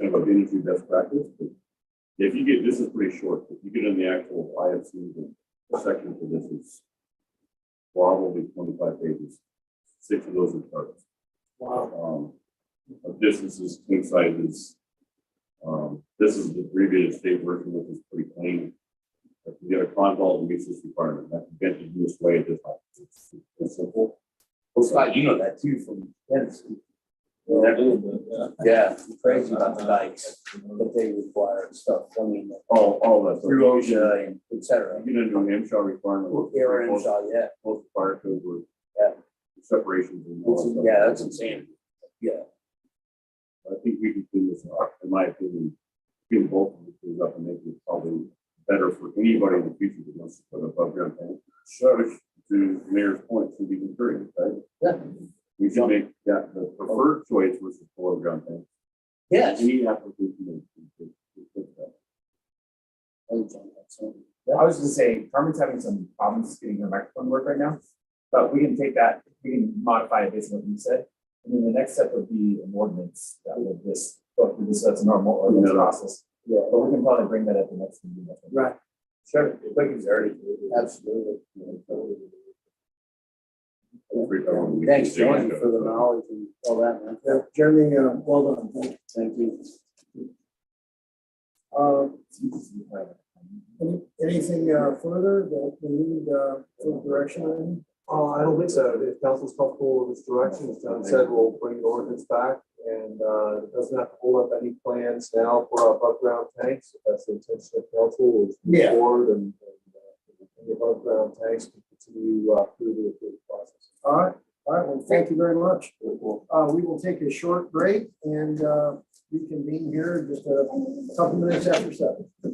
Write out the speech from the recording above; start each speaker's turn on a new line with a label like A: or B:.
A: kind of industry best practice. but If you get, this is pretty short, if you get in the actual IFC, the section for this is probably twenty-five pages, six of those are charts.
B: Wow.
A: Um, of distances, twin sizes. Um, this is the abbreviated state version, which is pretty plain. If you get a consult, it meets this requirement, that can get you this way, this, it's, it's simple.
C: Well, Scott, you know that too from Tennessee.
B: A little bit, yeah.
C: Yeah, crazy about the dikes that they require and stuff, I mean,
A: All, all of that.
C: through OSHA and et cetera.
A: You get into an MSHA requirement.
C: Well, Air and shot, yeah,
A: Both fire code were.
C: Yeah.
A: Separations and all
C: It's-
A: that stuff.
C: yeah, that's insane. yeah,
A: I think we can clean this up, in my opinion, clean both of these up and make it probably better for anybody in the future that wants to put above ground tank. Sure. To mayor's point, should be encouraged, right?
C: Yeah.
A: We should make that the preferred choice versus below ground tank.
C: yes.
A: Any application. that can- can- can fit that.
D: I was gonna say, Carmen's having some problems getting her microphone to work right now, but we can take that, we can modify it based on what you said. And then the next step would be an ordinance that would just go through this, that's a normal ordinance
A: Yeah.
D: process. Yeah. But we can probably bring that at the next meeting. I think.
C: Right,
D: Sure, quick and dirty.
C: absolutely.
A: Every time we-
C: Thanks, Jordan, for the knowledge and all that, man.
E: Yeah, Jeremy, uh, well done, thank you.
C: Thank you.
E: Uh, any- Anything uh, further that we need uh, for direction on?
F: Uh, I don't think so. If council's comfortable with this direction, as John said, we'll bring the ordinance back and, uh, it doesn't have to hold up any plans now for above ground tanks. If that's the intention of council, is move
E: Yeah.
F: forward and, and, uh, the above ground tanks can continue, uh, through the approval process.
E: All right, all right, well, thank you very much. Uh, We will take a short break and uh, reconvene here in just a couple minutes after seven.